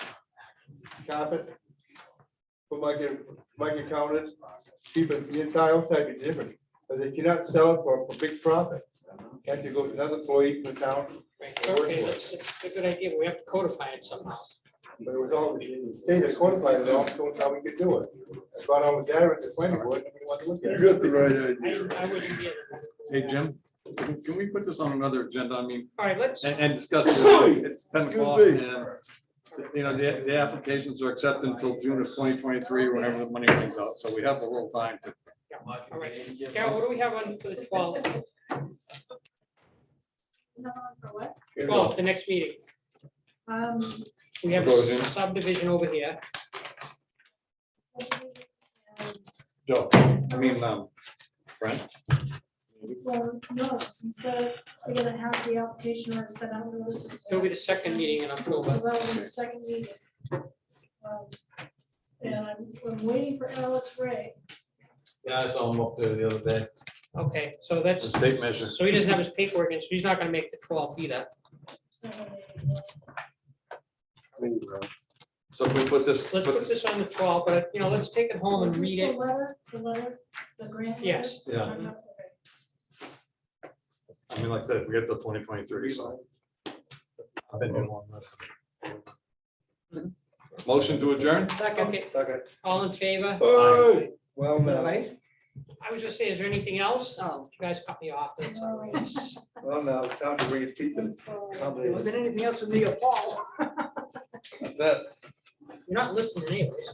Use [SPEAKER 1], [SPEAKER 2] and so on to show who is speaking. [SPEAKER 1] carpet. But like you, like you counted, keep it the entire type of different, but they cannot sell it for a big profit. Have to go to another employee in the town,
[SPEAKER 2] Okay, that's a good idea. We have to codify it somehow.
[SPEAKER 1] but it was all, the state is qualified, they all told how we could do it. I brought all the data at the planning board, and we wanted to look
[SPEAKER 3] You
[SPEAKER 1] at it.
[SPEAKER 3] got the right
[SPEAKER 2] I,
[SPEAKER 3] idea.
[SPEAKER 2] I wasn't here.
[SPEAKER 4] Hey, Jim, can we put this on another agenda? I mean,
[SPEAKER 2] All right, let's,
[SPEAKER 4] and, and discuss it. It's ten o'clock
[SPEAKER 3] Excuse me.
[SPEAKER 4] and, you know, the, the applications are accepted until June of twenty twenty-three, whenever the money comes out. So we have a little time to
[SPEAKER 2] all right. Carol, what do we have on for the twelfth?
[SPEAKER 5] No, for what?
[SPEAKER 2] Twelfth, the next meeting.
[SPEAKER 5] Um,
[SPEAKER 2] We have
[SPEAKER 4] Closing.
[SPEAKER 2] a subdivision over here.
[SPEAKER 4] Joe, I mean, um, Brent.
[SPEAKER 5] well, no, since the, we're gonna have the application already sent out the list. of-
[SPEAKER 2] It'll be the second meeting in
[SPEAKER 5] So
[SPEAKER 2] October.
[SPEAKER 5] that will be the second meeting. Um, And I'm, I'm waiting for Alex Ray.
[SPEAKER 6] Yeah, I saw him up there the other day,
[SPEAKER 2] Okay, so
[SPEAKER 4] The
[SPEAKER 2] that's,
[SPEAKER 4] state measure.
[SPEAKER 2] so he doesn't have his paperwork and so he's not gonna make the twelfth either.
[SPEAKER 5] so,
[SPEAKER 4] So if we put this,
[SPEAKER 2] Let's put this on the twelfth, but you know, let's take it home and
[SPEAKER 5] Is
[SPEAKER 2] read
[SPEAKER 5] this
[SPEAKER 2] it.
[SPEAKER 5] the letter, the letter, the grant? letter?
[SPEAKER 2] Yes.
[SPEAKER 4] Yeah.
[SPEAKER 5] Okay.
[SPEAKER 4] I mean, like I said, we get to twenty twenty-three, so. I've been here long
[SPEAKER 3] Mm-hmm.
[SPEAKER 4] enough. Motion to adjourn?
[SPEAKER 2] Second,
[SPEAKER 1] Okay.
[SPEAKER 2] all in favor?
[SPEAKER 1] Hey, Well, now,
[SPEAKER 2] Right? I was just saying, is there anything else? Oh, you guys cut me off. that's all right.
[SPEAKER 1] well, now, it's time to read people.
[SPEAKER 7] There wasn't anything else with me or Paul.
[SPEAKER 1] That's that.
[SPEAKER 2] You're not listening anyways.